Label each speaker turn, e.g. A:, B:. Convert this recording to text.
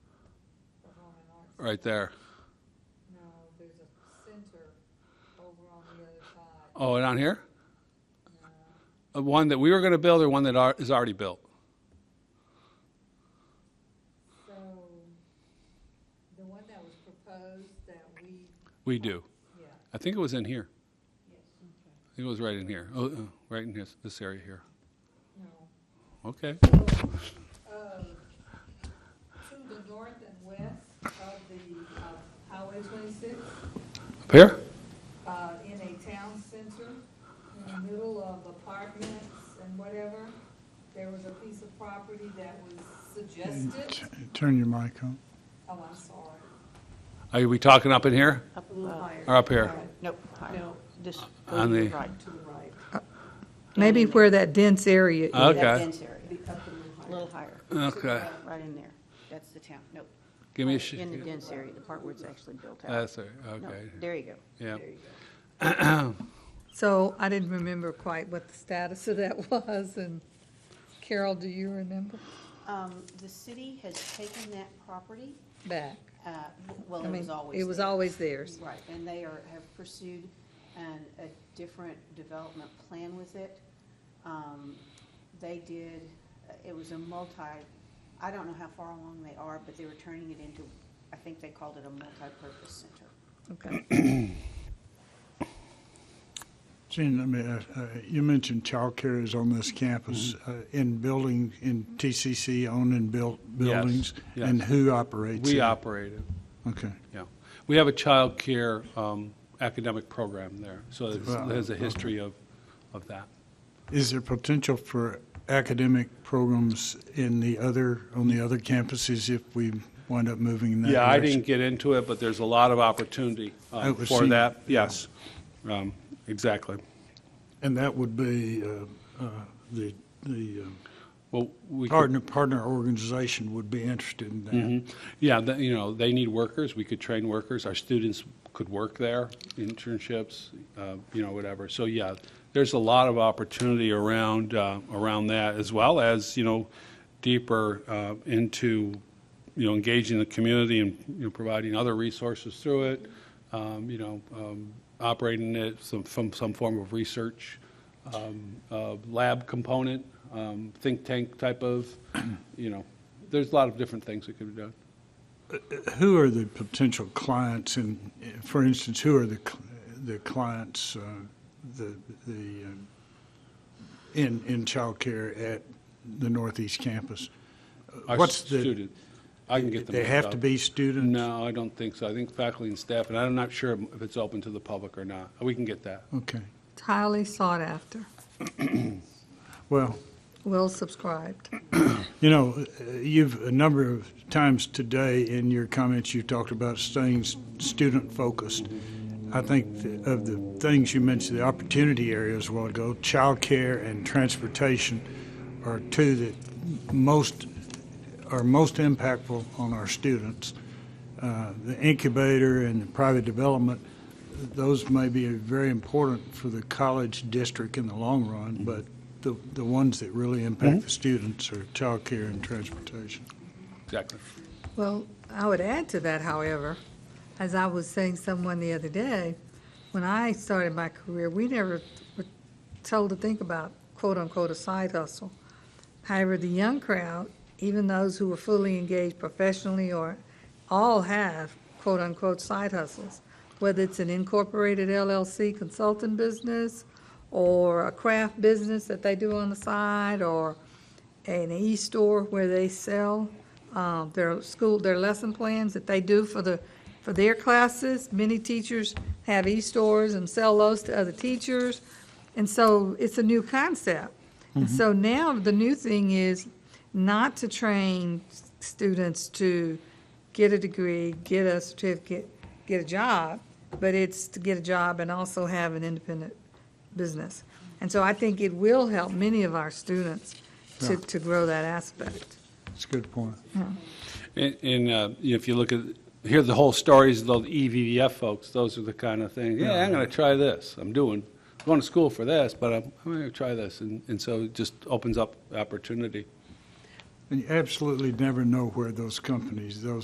A: right there.
B: No, there's a center over on the other side.
A: Oh, down here? Uh, One that we were going to build or one that ar- is already built?
B: So the one that was proposed that we,
A: We do.
B: yeah,
A: I think it was in here.
B: yes,
A: I think it was right in here. Oh, uh, right in this, this area here.
B: no.
A: Okay.
B: Uh, To the north and west of the uh, Highway 26,
A: Up here?
B: uh, in a town center, in the middle of apartments and whatever, there was a piece of property that was suggested.
C: Turn your mic on.
B: Oh, I'm sorry.
A: Are we talking up in here
D: Up,
B: A little
D: uh,
B: higher.
A: or up here?
D: Nope, higher. Just go
A: On
D: to the
A: the-
D: right.
B: To the right.
E: Maybe where that dense area is.
D: That
A: Okay.
D: dense area,
B: Be up a little
D: a
B: higher.
D: little higher, uh,
A: Okay.
D: right in there. That's the town, nope.
A: Give me a sh-
D: In the dense area, the part where it's actually built out.
A: That's it.
D: No,
A: Okay.
D: There you go.
A: Yeah.
D: There you go.
E: So I didn't remember quite what the status of that was, and Carol, do you remember?
D: Um, The city has taken that property,
E: Back.
D: uh, well,
E: I
D: it
E: mean,
D: was always
E: it was
D: there.
E: always theirs.
D: Right, and they are, have pursued an, a different development plan with it. Um, They did, it was a multi, I don't know how far along they are, but they were turning it into, I think they called it a multi-purpose center.
E: Okay.
C: Gene, I mean, uh, uh, you mentioned childcare is on
A: Mm-hmm.
C: this campus, uh, in building, in TCC owned and built
A: Yes,
C: buildings?
A: yes.
C: And who operates it?
A: We operate it.
C: Okay.
A: Yeah. We have a child care um, academic program there. So it's-
C: Wow.
A: there's a history of, of that.
C: Is there potential for academic programs in the other, on the other campuses if we wind up moving in that
A: Yeah, I
C: direction?
A: didn't get into it, but there's a lot of opportunity um,
C: I was
A: for
C: seeing-
A: that. Yes, Um, exactly.
C: And that would be uh, uh, the, the uh,
A: Well, we. could-
C: partner, partner organization would be interested in that.
A: Mhm. Yeah, the- you know, they need workers. We could train workers. Our students could work there, internships, uh, you know, whatever. So, yeah, there's a lot of opportunity around, uh, around that, as well as, you know, deeper uh, into, you know, engaging the community and, you know, providing other resources through it, um, you know, um, operating it some, from some form of research um, uh, lab component, um, think tank type of, you know, there's a lot of different things that could be done.
C: Who are the potential clients and, uh, for instance, who are the, cl- the clients, uh, the, the, uh, in, in childcare at the Northeast campus?
A: Our
C: What's the-
A: student, I can get them.
C: They
A: hooked
C: have to
A: up.
C: be students?
A: No, I don't think so. I think faculty and staff, and I'm not sure if it's open to the public or not. We can get that.
C: Okay,
E: It's highly sought after,
C: well,
E: well subscribed.
C: you know, uh, you've, a number of times today in your comments, you've talked about staying s- student-focused. I think th- of the things you mentioned, the opportunity areas a while ago, childcare and transportation are two that most, are most impactful on our students. Uh, The incubator and the private development, those may be very important for the college district in the long run, but the, the ones that really impact the students are childcare and transportation.
A: Exactly.
E: Well, I would add to that, however, as I was saying to someone the other day, when I started my career, we never were told to think about quote-unquote a side hustle. However, the young crowd, even those who are fully engaged professionally or all have quote-unquote side hustles, whether it's an incorporated LLC consulting business or a craft business that they do on the side or an e-store where they sell uh, their school, their lesson plans that they do for the, for their classes. Many teachers have e-stores and sell those to other teachers. And so it's a new concept. And so now the new thing is not to train s- students to get a degree, get a certificate, get a job, but it's to get a job and also have an independent business. And so I think it will help many of our students to,
C: Yeah.
E: to grow that aspect.
C: That's a good point.
A: And, and uh, you know, if you look at, hear the whole stories of those EVVF folks, those are the kind of things, yeah, I'm going to try this. I'm doing, going to school for this, but I'm, I'm going to try this. And, and so it just opens up opportunity.
C: And you absolutely never know where those companies, those